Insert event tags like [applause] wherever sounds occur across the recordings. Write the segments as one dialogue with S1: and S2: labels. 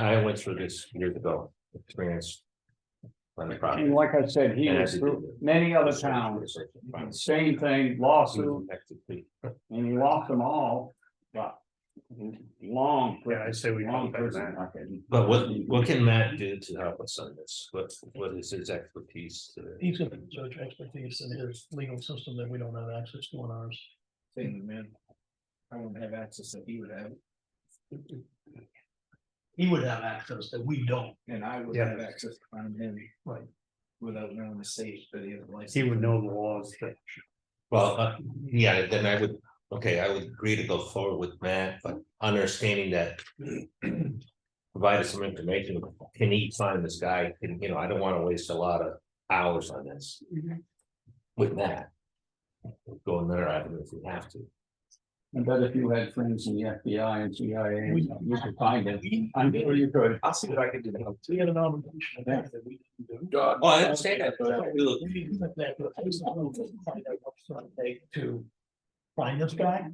S1: I went through this years ago, experience. On the
S2: And
S1: property.
S2: like I said, he
S1: And I
S2: was
S1: did do
S2: through
S1: that.
S2: many other towns, same thing, lawsuit,
S1: Mm-hmm.
S2: and he lost them all, but. Long.
S3: Yeah, I'd say we
S2: Long
S3: help him,
S2: prison
S3: man.
S2: record.
S1: But what, what can Matt do to help us on this? What, what is his expertise? to-
S3: He's got judge expertise in his legal system that we don't have access to in ours.
S4: thing, man. I wouldn't have access that he would have,
S3: He would have access that we don't.
S4: and I would
S3: Yeah.
S4: have access on him.
S3: Right.
S4: Without knowing the state that he has a license.
S3: He would know the laws that.
S1: Well, uh, yeah, then I would, okay, I would agree to go forward with Matt, but understanding that. [clears throat] Provide us some information, can he find this guy, and you know, I don't wanna waste a lot of hours on this. With that. Go another avenue if we have to.
S2: I bet if you had friends in the FBI and CIA,
S3: We-
S2: you could find it. I'm sure you could.
S4: I'll see what I can do to help.
S3: We had an obligation to that that we didn't do.
S1: Oh, I understand that, but I feel-
S3: We didn't do that, but I just don't know find out what's gonna take To find this guy,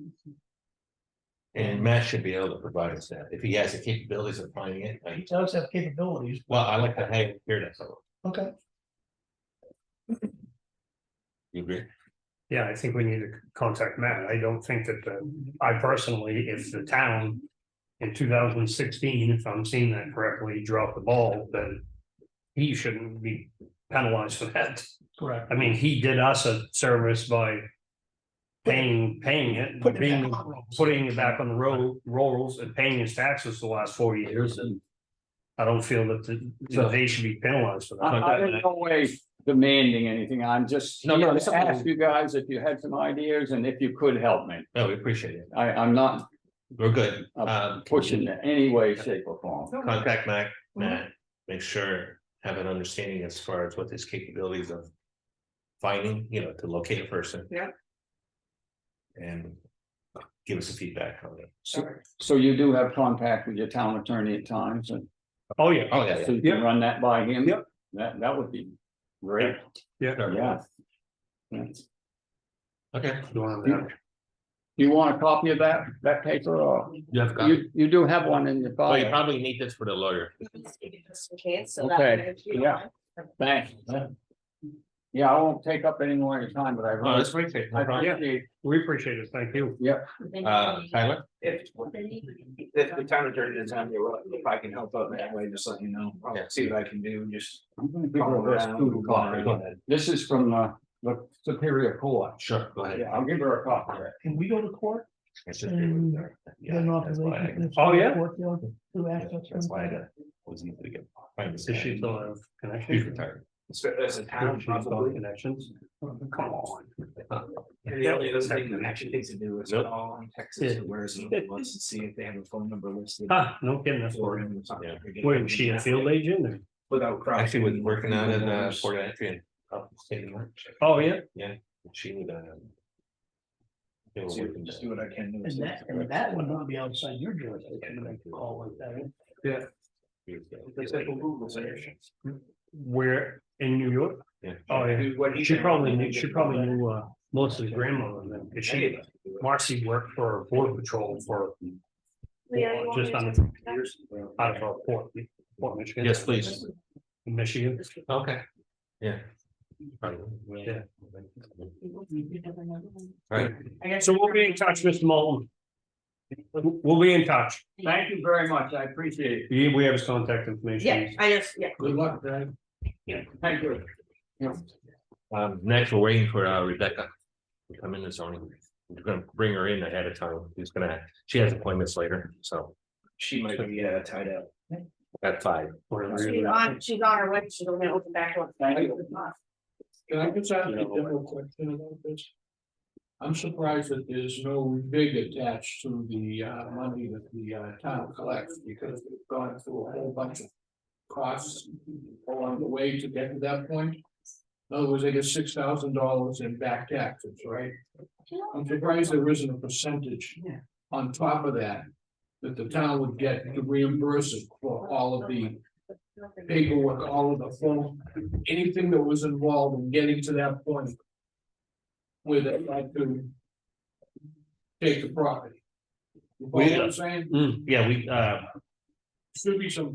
S1: and Matt should be able to provide us that, if he has the capabilities of finding it,
S3: he
S1: like,
S3: does have capabilities,
S1: well, I like to hang here that fellow,
S3: okay.
S1: you agree?
S5: Yeah, I think we need to contact Matt. I don't think that, the I personally, if the town. In two thousand sixteen, if I'm seeing that correctly, dropped the ball, then. He shouldn't be penalized for that.
S3: Correct.
S5: I mean, he did us a service by. Paying, paying it,
S3: Put it
S5: being,
S3: back on rolls.
S5: putting it back on the road, rolls and paying his taxes the last four years and. I don't feel that the- that they should be penalized for that.
S2: I, I'm in no way demanding anything. I'm just
S1: No,
S2: here
S1: no,
S2: to
S1: it's okay.
S2: ask you guys if you had some ideas and if you could help me.
S1: No, we appreciate it,
S2: I, I'm not
S1: we're good,
S2: I'm
S1: um.
S2: pushing in any way, shape or form.
S1: contact Mac, Matt, make sure, have an understanding as far as what his capabilities of. Finding, you know, to locate a person.
S4: Yeah.
S1: And give us a feedback on it.
S2: So you do have contact with your town attorney at times and
S5: Oh, yeah.
S1: Oh, yeah,
S2: so you can run that by him?
S5: Yep.
S2: That, that would be great.
S1: yeah,
S2: Yeah. Yes.
S1: okay.
S5: You want to-
S2: You want a copy of that, that paper or
S1: You have got,
S2: you, you do have one in your
S1: oh, you
S2: file?
S1: probably need this for the lawyer.
S6: Just in case, so
S2: Okay,
S6: that.
S2: yeah. Thanks. Yeah, I won't take up any more of your time, but I
S1: Oh,
S2: really,
S1: that's great. Jake,
S2: I
S1: no problem.
S2: appreciate
S5: We appreciate it. Thank you.
S1: Uh, Tyler,
S4: If, if the town attorney doesn't have your, if I can help out in that way, just let you know, I'll
S1: Yeah.
S4: see what I can do, and just.
S2: I'm gonna give
S4: follow
S2: her this
S4: around,
S2: two
S4: move
S2: copy.
S4: around.
S2: This is from uh, the Superior Court.
S1: sure, go ahead.
S2: Yeah, I'll give her a copy.
S3: Can we go to court?
S1: It's just there with her. Yeah,
S3: Then
S1: that's why I-
S3: authorization-
S5: Oh, yeah.
S3: Court, you know, to
S1: yeah,
S3: access
S1: That's why I
S3: him.
S1: got- was easy to get. find this
S5: Does she
S1: guy.
S5: still have
S1: He's
S5: connections?
S1: retired.
S4: As as a town,
S5: Does she still have
S4: probably,
S5: Connections? Come on.
S4: and the only other thing that actually
S5: Nope.
S4: needs to do is
S1: Nope.
S4: call in Texas, and where's,
S1: [laughs]
S4: wants to see if they have a phone number listed.
S5: Ah, no kidding, that's
S4: for
S5: boring.
S4: him or something.
S1: Yeah.
S5: Wait, was she a field agent or?
S4: Without. crossing-
S1: Actually, was working out in uh,
S4: Without-
S1: Port Entry and up the state of March.
S5: Oh, yeah.
S1: She would, um. they were
S4: See,
S1: working
S4: Just
S1: down.
S4: do what I can.
S3: And that, and that would not be outside your jurisdiction, like, call like that.
S4: It's like a Google search.
S5: Where, in New York?
S1: Yeah.
S5: Oh, yeah.
S4: Do what he
S5: She
S4: can.
S5: probably knew, she probably knew uh Melissa's grandmother then, 'cause she, Marcy worked for Border Patrol for just under fifty years out of uh, Port, Port Michigan.
S1: Yes, please.
S5: Michigan.
S1: Okay. Yeah. Probably,
S5: Yeah.
S1: All right.
S5: So we'll be in touch, Mr. Moulton. We'll be in touch.
S2: Thank you very much. I appreciate it.
S5: We we have his contact information.
S6: Yeah, I just, yeah.
S2: Good luck, Dave.
S1: Yeah.
S2: Thank you. Yeah.
S1: Um, next, we're waiting for uh, Rebecca. to Come in this morning. We're gonna bring her in ahead of time. She's gonna, she has appointments later, so
S4: She might be uh, tied up.
S1: at five.
S5: Whatever.
S6: She's on, she's on her way, she's gonna open back up.
S2: Thank you.
S7: Can I just ask a
S1: Yeah, well-
S7: general question about this? I'm surprised that there's no big attached to the uh money that the uh town collects because we've gone through a whole bunch of. Costs along the way to get to that point. In other words, they get six thousand dollars in back taxes, right? I'm surprised there isn't a percentage.
S2: Yeah.
S7: On top of that, that the town would get to reimburse it for all of the paperwork, all of the form, anything that was involved in getting to that point. Where they like to. Take the property. You know what I'm saying?
S1: Mm, Yeah, we, uh,
S7: Should be some